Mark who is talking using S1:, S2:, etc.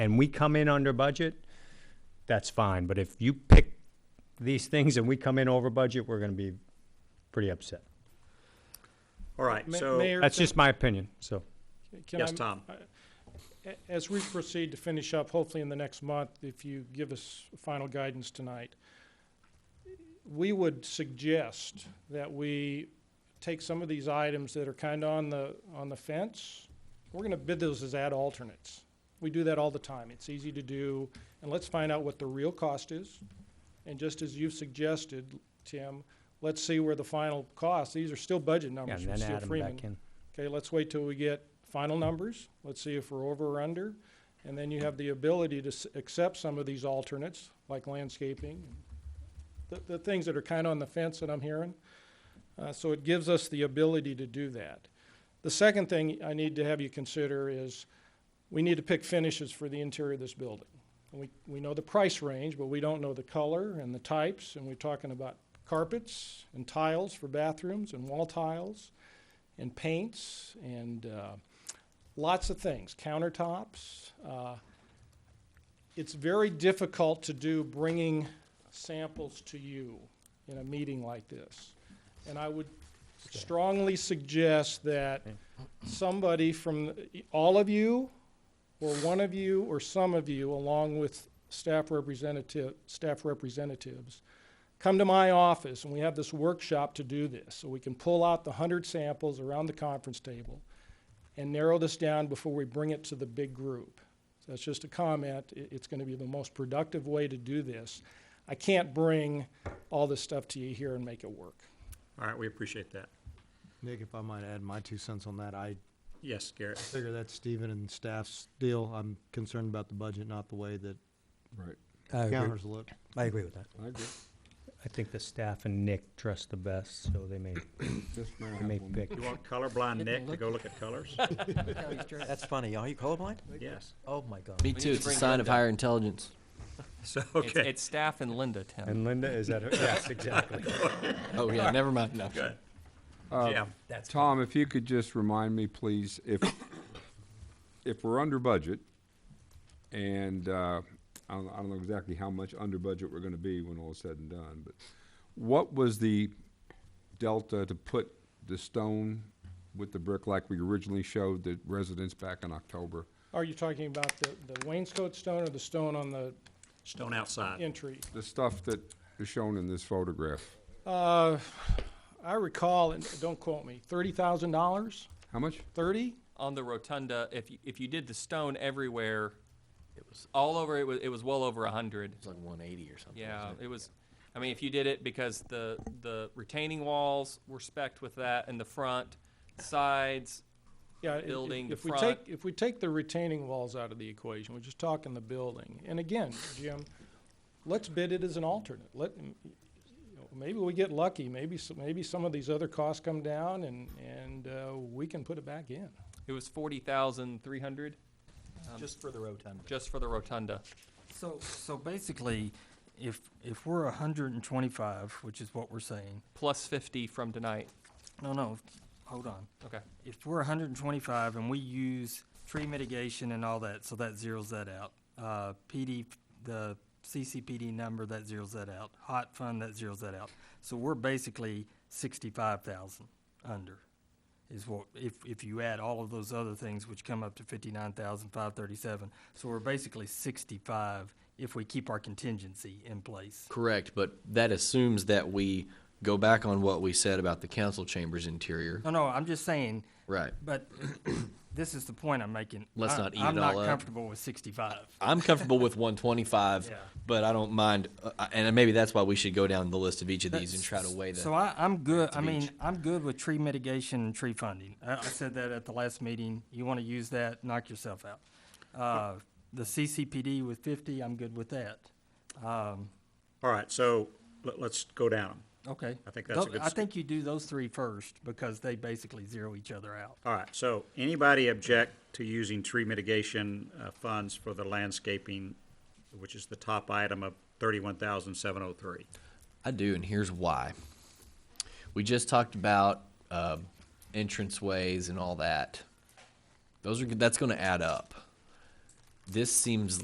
S1: and we come in under budget, that's fine. But if you pick these things and we come in over budget, we're gonna be pretty upset.
S2: All right,
S3: Ma-
S2: so,
S3: Mayor,
S1: That's
S3: can-
S1: just my opinion, so.
S3: can
S2: yes,
S3: I-
S2: Tom.
S3: a- As we proceed to finish up, hopefully in the next month, if you give us final guidance tonight, we would suggest that we take some of these items that are kind of on the, on the fence. We're going to bid those as ad alternates. We do that all the time. It's easy to do. And let's find out what the real cost is. And just as you've suggested, Tim, let's see where the final cost, these are still budget
S1: yeah,
S3: numbers
S1: And
S3: from
S1: then
S3: Steel
S1: add them
S3: Freeman.
S1: back in.
S3: Okay, let's wait till we get final numbers. Let's see if we're over or under. And then you have the ability to s- accept some of these alternates, like landscaping, the, the things that are kind of on the fence that I'm hearing. Uh, so it gives us the ability to do that. The second thing I need to have you consider is we need to pick finishes for the interior of this building. And we, we know the price range, but we don't know the color and the types. And we're talking about carpets and tiles for bathrooms and wall tiles and paints and uh, lots of things, countertops. Uh, It's very difficult to do bringing samples to you in a meeting like this. And I would strongly suggest that somebody from, all of you, or one of you, or some of you, along with staff representative, staff representatives, come to my office and we have this workshop to do this. So we can pull out the hundred samples around the conference table and narrow this down before we bring it to the big group. So that's just a comment. I- it's gonna be the most productive way to do this. I can't bring all this stuff to you here and make it work.
S2: All right, we appreciate that.
S4: Nick, if I might add my two cents on that, I
S2: Yes, Garrett.
S4: figure that's Stephen and staff's deal. I'm concerned about the budget, not the way that
S5: Right.
S1: I agree,
S4: counters look.
S1: I agree with that.
S5: I agree.
S1: I think the staff and Nick trust the best, so they may,
S5: Just may
S1: they may
S5: have one.
S1: pick.
S2: You want colorblind Nick to go look at colors?
S6: That's funny. Are you colorblind?
S2: Yes.
S6: Oh my god.
S7: Me too. It's a sign of higher intelligence.
S2: So,
S7: It's,
S2: okay,
S7: it's staff and Linda, Tim.
S1: And Linda, is that her? Yes, exactly.
S7: Oh, yeah, never mind. No.
S2: good.
S5: Uh,
S2: Yeah,
S3: Um,
S5: Tom, if you could just remind me, please, if, if we're under budget, and, uh, I don't, I don't know exactly how much under budget we're gonna be when all is said and done, but what was the delta to put the stone with the brick like we originally showed the residents back in October?
S3: Are you talking about the, the wainscot stone or the stone on the
S2: stone outside.
S3: entry?
S5: The stuff that is shown in this photograph,
S3: Uh, I recall, and don't quote me, thirty thousand dollars?
S5: how much?
S3: Thirty?
S7: On the rotunda, if you, if you did the stone everywhere, it was all over. It was it was well over a hundred.
S6: It's like 180 or something.
S7: Yeah, it was. I mean, if you did it because the the retaining walls were specked with that, and the front, sides,
S3: Yeah, if- if-
S7: building, the
S3: if we
S7: front.
S3: take, if we take the retaining walls out of the equation, we're just talking the building. And again, Jim, let's bid it as an alternate. Let, you know, maybe we get lucky, maybe, s- maybe some of these other costs come down and, and uh, we can put it back in.
S7: it was forty thousand three hundred
S6: Just for the rotunda.
S7: just for the rotunda.
S8: So, so basically, if, if we're hundred and twenty-five, which is what we're saying,
S7: Plus fifty from tonight.
S8: no, no, hold on.
S7: Okay.
S8: If we're hundred and twenty-five and we use tree mitigation and all that, so that zeros that out. Uh, PD, the CCPD number, that zeros that out. Hot fund, that zeros that out. So we're basically sixty-five thousand under is what, if, if you add all of those other things, which come up to fifty-nine thousand five thirty-seven. So we're basically sixty-five if we keep our contingency in place.
S7: Correct,
S9: But that assumes that we go back on what we said about the council chamber's interior.
S8: No, no, I'm just saying,
S9: Right.
S8: but this is the point I'm making.
S9: Let's
S8: I-
S9: not eat it
S8: I'm
S9: all
S8: not
S9: up.
S8: comfortable with sixty-five.
S9: I'm comfortable with 125,
S8: Yeah.
S9: but I don't mind, uh, and maybe that's why we should go down the list of each of these and try to weigh
S8: So
S9: them.
S8: I, I'm good,
S9: to
S8: I mean,
S9: beach.
S8: I'm good with tree mitigation and tree funding. I, I said that at the last meeting. You wanna use that, knock yourself out. Uh, the CCPD with fifty, I'm good with that. Um,
S2: All right, so let, let's go down.
S8: okay.
S2: I think that's a
S8: Tho-
S2: good
S8: I
S2: s-
S8: think you do those three first, because they basically zero each other out.
S2: All right, so anybody object to using tree mitigation uh, funds for the landscaping, which is the top item of thirty-one thousand seven oh three?
S9: I do, and here's why. We just talked about um, entranceways and all that. Those are, that's going to add up. This seems